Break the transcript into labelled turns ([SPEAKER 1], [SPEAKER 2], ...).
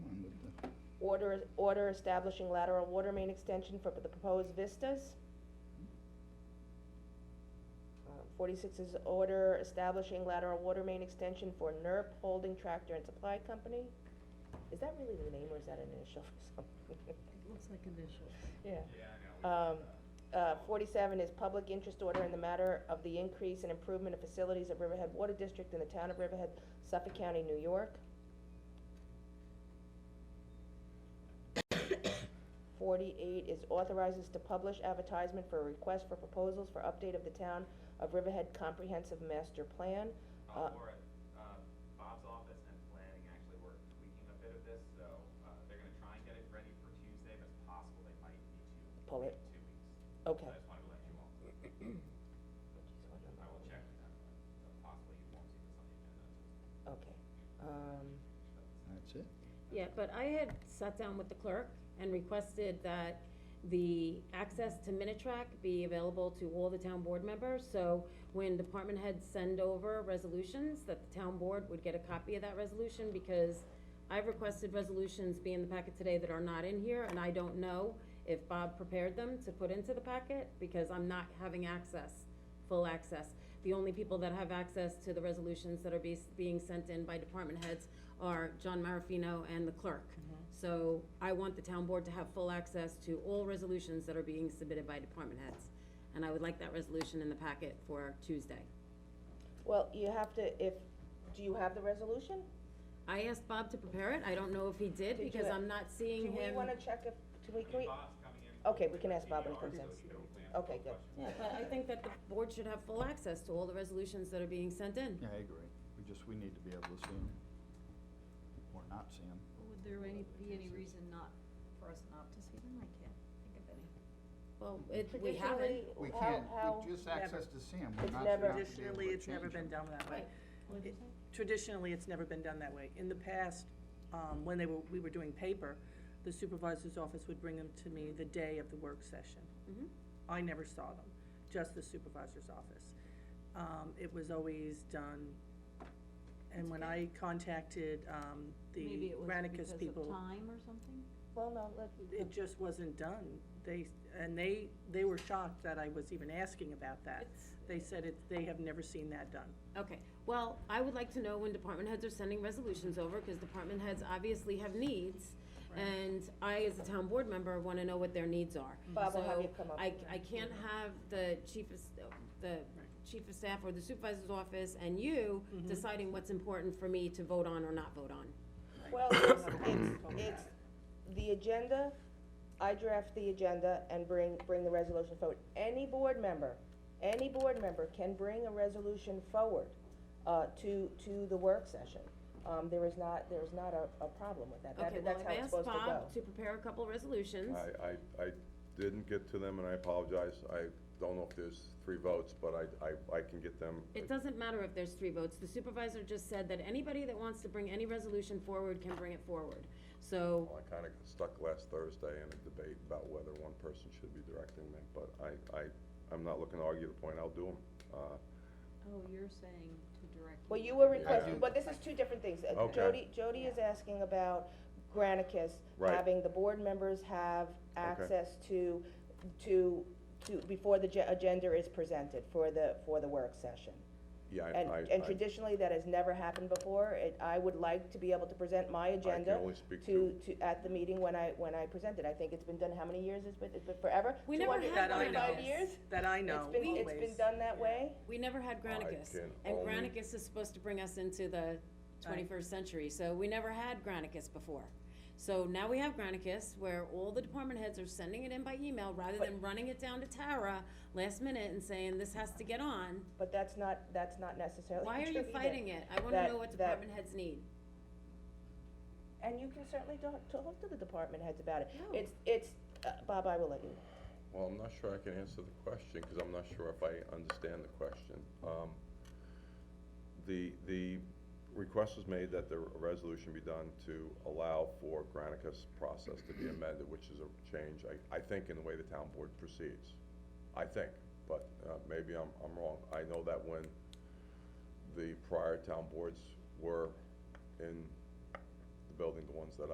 [SPEAKER 1] order, order establishing lateral water main extension for the proposed vistas. Uh, Forty-six is order establishing lateral water main extension for NERP Holding Tractor and Supply Company. Is that really the name or is that an initial or something?
[SPEAKER 2] It looks like initials.
[SPEAKER 1] Yeah.
[SPEAKER 3] Yeah, I know.
[SPEAKER 1] Um, uh, forty-seven is public interest order in the matter of the increase and improvement of facilities of Riverhead Water District in the town of Riverhead, Suffolk County, New York. Forty-eight is authorizes to publish advertisement for a request for proposals for update of the town of Riverhead Comprehensive Master Plan.
[SPEAKER 3] Uh,
[SPEAKER 1] uh,
[SPEAKER 3] Laura, uh, Bob's office and planning actually were tweaking a bit of this, so, uh, they're gonna try and get it ready for Tuesday, but it's possible they might need to
[SPEAKER 1] Pull it.
[SPEAKER 3] wait two weeks.
[SPEAKER 1] Okay.
[SPEAKER 3] So I just wanted to let you all, know. I will check with them, but possibly you won't see this on the agenda.
[SPEAKER 1] Okay, um,
[SPEAKER 4] That's it?
[SPEAKER 2] Yeah, but I had sat down with the clerk and requested that the access to Minitrack be available to all the town board members. So when department heads send over resolutions, that the town board would get a copy of that resolution because I've requested resolutions be in the packet today that are not in here, and I don't know if Bob prepared them to put into the packet because I'm not having access, full access. The only people that have access to the resolutions that are be, being sent in by department heads are John Marafino and the clerk.
[SPEAKER 1] Mm-hmm.
[SPEAKER 2] So I want the town board to have full access to all resolutions that are being submitted by department heads. And I would like that resolution in the packet for Tuesday.
[SPEAKER 1] well, you have to, if, do you have the resolution?
[SPEAKER 2] I asked Bob to prepare it, I don't know if he did,
[SPEAKER 1] Did you-
[SPEAKER 2] because I'm not seeing him.
[SPEAKER 1] Do we wanna check if, do we, can we,
[SPEAKER 3] Bob's coming in.
[SPEAKER 1] Okay, we can ask Bob when he
[SPEAKER 3] Maybe
[SPEAKER 1] comes in.
[SPEAKER 3] ours, so we can plan
[SPEAKER 1] Okay,
[SPEAKER 3] for
[SPEAKER 1] good.
[SPEAKER 3] questions.
[SPEAKER 2] Yeah, but I think that the board should have full access to all the resolutions that are being sent in.
[SPEAKER 4] Yeah, I agree. We just, we need to be able to see them. Or not see them.
[SPEAKER 5] Would there any, be any reason not, for us not to see them? I can't think of any.
[SPEAKER 2] Well, it, we
[SPEAKER 1] traditionally,
[SPEAKER 2] haven't.
[SPEAKER 4] We
[SPEAKER 1] how,
[SPEAKER 4] can,
[SPEAKER 1] how,
[SPEAKER 4] we just
[SPEAKER 6] Never.
[SPEAKER 4] access to see them.
[SPEAKER 1] It's never-
[SPEAKER 6] Traditionally, it's never been done that way. It- Traditionally, it's never been done that way. In the past, um, when they were, we were doing paper, the supervisor's office would bring them to me the day of the work session.
[SPEAKER 5] Mm-hmm.
[SPEAKER 2] Mhm.
[SPEAKER 6] I never saw them, just the supervisor's office. Um, it was always done, and when I contacted, um, the Granicus
[SPEAKER 5] Maybe it was because of
[SPEAKER 6] people,
[SPEAKER 5] time or something?
[SPEAKER 1] well, no, let,
[SPEAKER 6] it just wasn't done. They, and they, they were shocked that I was even asking about that.
[SPEAKER 2] It's-
[SPEAKER 6] They said it, they have never seen that done.
[SPEAKER 2] Okay, well, I would like to know when department heads are sending resolutions over, because department heads obviously have needs. And I, as a town board member, wanna know what their needs are.
[SPEAKER 1] Mm-hmm. Bob will have
[SPEAKER 2] So
[SPEAKER 1] you come up
[SPEAKER 2] I,
[SPEAKER 1] with Mm-hmm.
[SPEAKER 2] I can't have the chief of, s- the chief of staff or the supervisor's office and you
[SPEAKER 1] Mm-hmm.
[SPEAKER 2] deciding what's important for me to vote on or not vote on.
[SPEAKER 1] well, it's, it's, it's, the agenda, I draft the agenda and bring, bring the resolution forward. Any board member, any board member can bring a resolution forward, uh, to, to the work session. Um, there is not, there is not a, a problem with that,
[SPEAKER 2] Okay,
[SPEAKER 1] that,
[SPEAKER 2] well,
[SPEAKER 1] that's how
[SPEAKER 2] I've
[SPEAKER 1] it's
[SPEAKER 2] asked
[SPEAKER 1] supposed to go.
[SPEAKER 2] Bob to prepare a couple resolutions.
[SPEAKER 7] I, I, I didn't get to them and I apologize. I don't know if there's three votes, but I, I, I can get them.
[SPEAKER 2] It doesn't matter if there's three votes, the supervisor just said that anybody that wants to bring any resolution forward can bring it forward. So,
[SPEAKER 7] Well, I kinda got stuck last Thursday in a debate about whether one person should be directing them, but I, I, I'm not looking to argue the point. I'll do them. Uh,
[SPEAKER 5] Oh, you're saying to direct.
[SPEAKER 1] Well, you were
[SPEAKER 7] Yeah.
[SPEAKER 1] requesting, but this is two different things. Uh,
[SPEAKER 7] Okay.
[SPEAKER 1] Jody, Jody is asking about Granicus,
[SPEAKER 7] Right.
[SPEAKER 1] having the board members have access to, to, to, before the ge- agenda is presented for the, for the work session.
[SPEAKER 7] yeah, I,
[SPEAKER 1] And,
[SPEAKER 7] I,
[SPEAKER 1] and
[SPEAKER 7] I,
[SPEAKER 1] traditionally, that has never happened before. It, I would like to be able to present my
[SPEAKER 7] I can
[SPEAKER 1] agenda
[SPEAKER 7] only speak
[SPEAKER 1] to,
[SPEAKER 7] to,
[SPEAKER 1] to, at the meeting when I, when I present it. I think it's been done, how many years? It's been, it's been forever?
[SPEAKER 2] We never had
[SPEAKER 6] one of
[SPEAKER 1] 225
[SPEAKER 2] those.
[SPEAKER 1] years?
[SPEAKER 6] That I know,
[SPEAKER 1] It's been, it's been
[SPEAKER 6] always.
[SPEAKER 1] done that way?
[SPEAKER 2] we never had Granicus,
[SPEAKER 7] can
[SPEAKER 2] and
[SPEAKER 7] only-
[SPEAKER 2] Granicus is supposed to bring us into the twenty-first century, so we never had Granicus before. So now we have Granicus, where all the department heads are sending it in by email, rather than running it down to Tara last minute and saying, this has to get on.
[SPEAKER 1] But that's not, that's not necessarily
[SPEAKER 2] Why are
[SPEAKER 1] true
[SPEAKER 2] you
[SPEAKER 1] either.
[SPEAKER 2] fighting it? I wanna
[SPEAKER 1] That-
[SPEAKER 2] know what
[SPEAKER 1] that-
[SPEAKER 2] department heads need.
[SPEAKER 1] And you can certainly talk, talk to the department heads about it.
[SPEAKER 2] No.
[SPEAKER 1] It's, it's, uh, Bob, I will let you.
[SPEAKER 7] well, I'm not sure I can answer the question, cause I'm not sure if I understand the question. Um, the, the request was made that the resolution be done to allow for Granicus process to be amended, which is a change, I, I think, in the way the town board proceeds. I think, but, uh, maybe I'm, I'm wrong. I know that when the prior town boards were in the building, the ones that